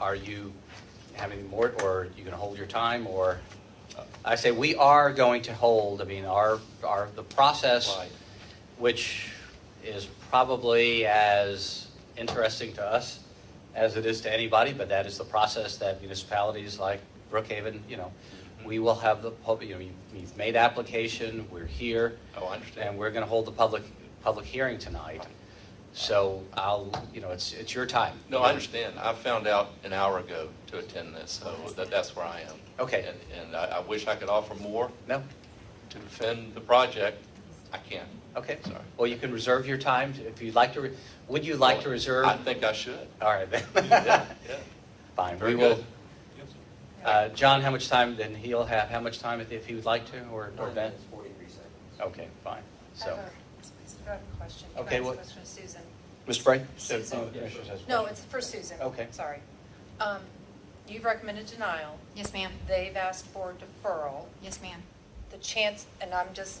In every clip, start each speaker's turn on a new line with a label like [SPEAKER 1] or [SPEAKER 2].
[SPEAKER 1] Are you having more, or are you going to hold your time, or? I say, we are going to hold, I mean, our, our, the process,
[SPEAKER 2] Right.
[SPEAKER 1] which is probably as interesting to us as it is to anybody, but that is the process that municipalities like Brookhaven, you know,
[SPEAKER 2] Mm-hmm.
[SPEAKER 1] we will have the, pub- you know, you- you've made application, we're here.
[SPEAKER 2] Oh, I understand.
[SPEAKER 1] And we're going to hold the public, public hearing tonight. So I'll, you know, it's, it's your time.
[SPEAKER 2] No, I understand. I found out an hour ago to attend this, so that, that's where I am.
[SPEAKER 1] Okay.
[SPEAKER 2] And- And I, I wish I could offer more
[SPEAKER 1] No?
[SPEAKER 2] to defend the project. I can't.
[SPEAKER 1] Okay.
[SPEAKER 2] Sorry.
[SPEAKER 1] Well, you can reserve your time if you'd like to, re- would you like to reserve?
[SPEAKER 2] I think I should.
[SPEAKER 1] All right,
[SPEAKER 2] Yeah,
[SPEAKER 1] then.
[SPEAKER 2] yeah.
[SPEAKER 1] Fine, we
[SPEAKER 2] Very
[SPEAKER 1] will.
[SPEAKER 2] good.
[SPEAKER 1] Uh, John, how much time, then he'll have, how much time if- if he would like to, or or Ben?
[SPEAKER 3] One minute, forty-three seconds.
[SPEAKER 1] Okay, fine, so.
[SPEAKER 4] I have a- I have a question. Can I
[SPEAKER 1] Okay,
[SPEAKER 4] ask a
[SPEAKER 1] what-
[SPEAKER 4] question to Susan?
[SPEAKER 1] Mr. Frey?
[SPEAKER 4] Susan.
[SPEAKER 1] Oh, yeah, sure, that's-
[SPEAKER 4] No, it's for Susan.
[SPEAKER 1] Okay.
[SPEAKER 4] Sorry. Um, You've recommended denial.
[SPEAKER 5] Yes, ma'am.
[SPEAKER 4] They've asked for deferral.
[SPEAKER 5] Yes, ma'am.
[SPEAKER 4] The chance, and I'm just,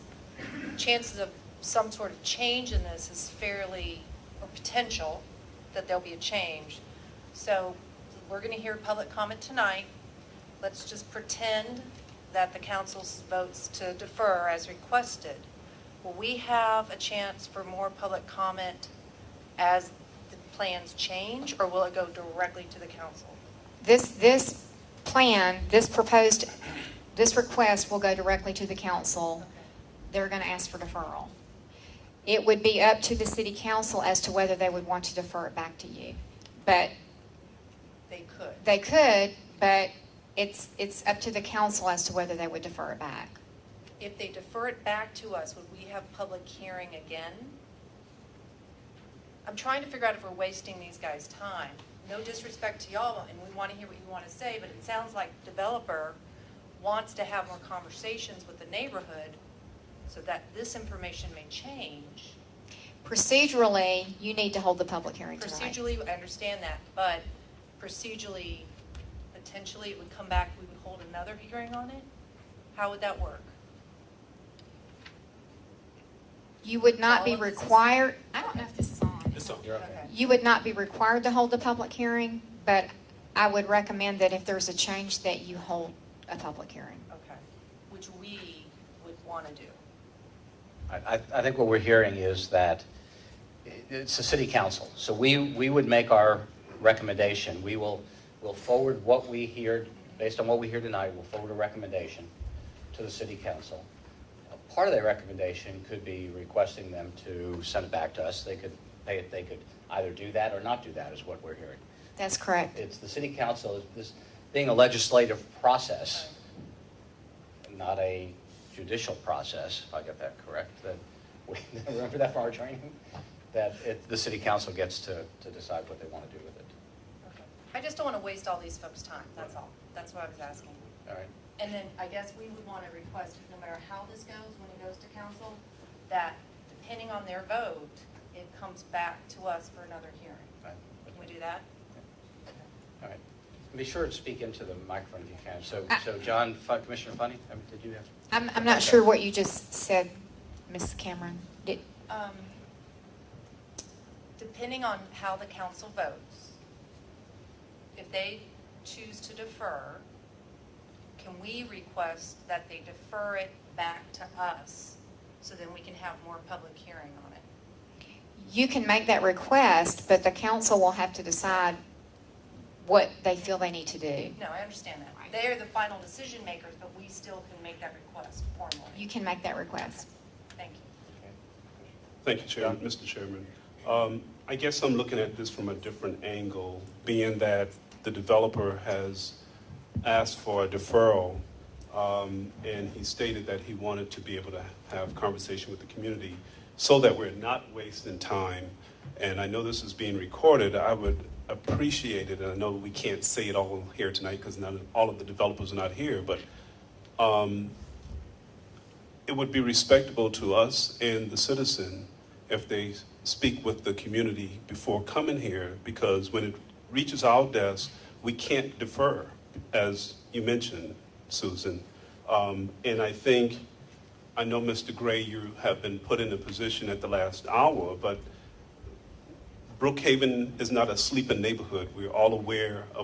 [SPEAKER 4] chances of some sort of change in this is fairly, or potential, that there'll be a change. So we're going to hear public comment tonight. Let's just pretend that the council votes to defer as requested. Will we have a chance for more public comment as the plans change, or will it go directly to the council?
[SPEAKER 5] This, this plan, this proposed, this request will go directly to the council. They're going to ask for deferral. It would be up to the city council as to whether they would want to defer it back to you. But
[SPEAKER 4] They could.
[SPEAKER 5] they could, but it's, it's up to the council as to whether they would defer it back.
[SPEAKER 4] If they defer it back to us, would we have public hearing again? I'm trying to figure out if we're wasting these guys' time. No disrespect to y'all, and we want to hear what you want to say, but it sounds like developer wants to have more conversations with the neighborhood so that this information may change.
[SPEAKER 5] Procedurally, you need to hold the public hearing tonight.
[SPEAKER 4] Procedurally, I understand that, but procedurally, potentially, it would come back, we would hold another hearing on it? How would that work?
[SPEAKER 5] You would not be
[SPEAKER 4] All of this is-
[SPEAKER 5] required, I don't know if this is on.
[SPEAKER 6] It's on.
[SPEAKER 4] Okay.
[SPEAKER 5] You would not be required to hold a public hearing, but I would recommend that if there's a change, that you hold a public hearing.
[SPEAKER 4] Okay, which we would want to do.
[SPEAKER 1] I, I- I think what we're hearing is that i- it's the city council. So we, we would make our recommendation. We will, we'll forward what we hear, based on what we hear tonight, we'll forward a recommendation to the city council. A Part of that recommendation could be requesting them to send it back to us. They could, they, they could either do that or not do that, is what we're hearing.
[SPEAKER 5] That's correct.
[SPEAKER 1] It's the city council, this being a legislative process, not a judicial process, if I get that correct, that, we remember that from our training? That it, the city council gets to, to decide what they want to do with it.
[SPEAKER 4] Okay. I just don't want to waste all these folks' time, that's all. That's what I was asking.
[SPEAKER 1] All right?
[SPEAKER 4] And then I guess we would want to request, no matter how this goes, when it goes to council, that depending on their vote, it comes back to us for another hearing.
[SPEAKER 1] Right.
[SPEAKER 4] Can we do that?
[SPEAKER 1] All right. And Be sure to speak into the microphone if you can. So, so John, Fu- Commissioner Funny, um, did you have?
[SPEAKER 5] Uh, I'm, I'm not sure what you just said, Ms. Cameron. Did-
[SPEAKER 4] Um, Depending on how the council votes, if they choose to defer, can we request that they defer it back to us so then we can have more public hearing on it?
[SPEAKER 5] You can make that request, but the council will have to decide what they feel they need to do.
[SPEAKER 4] No, I understand that.
[SPEAKER 5] Right.
[SPEAKER 4] They are the final decision makers, but we still can make that request formally.
[SPEAKER 5] You can make that request.
[SPEAKER 4] Thank you.
[SPEAKER 6] Thank you, Chairman, Mr. Chairman. Um, I guess I'm looking at this from a different angle, being that the developer has asked for a deferral, um, and he stated that he wanted to be able to have conversation with the community so that we're not wasting time. And I know this is being recorded, I would appreciate it, and I know we can't say it all here tonight because none, of- all of the developers are not here, but it would be respectable to us and the citizen if they speak with the community before coming here, because when it reaches our desk, we can't defer, as you mentioned, Susan. Um, and I think, I know, Mr. Gray, you have been put in a position at the last hour, but Brookhaven is not a sleeping neighborhood. We're all aware of.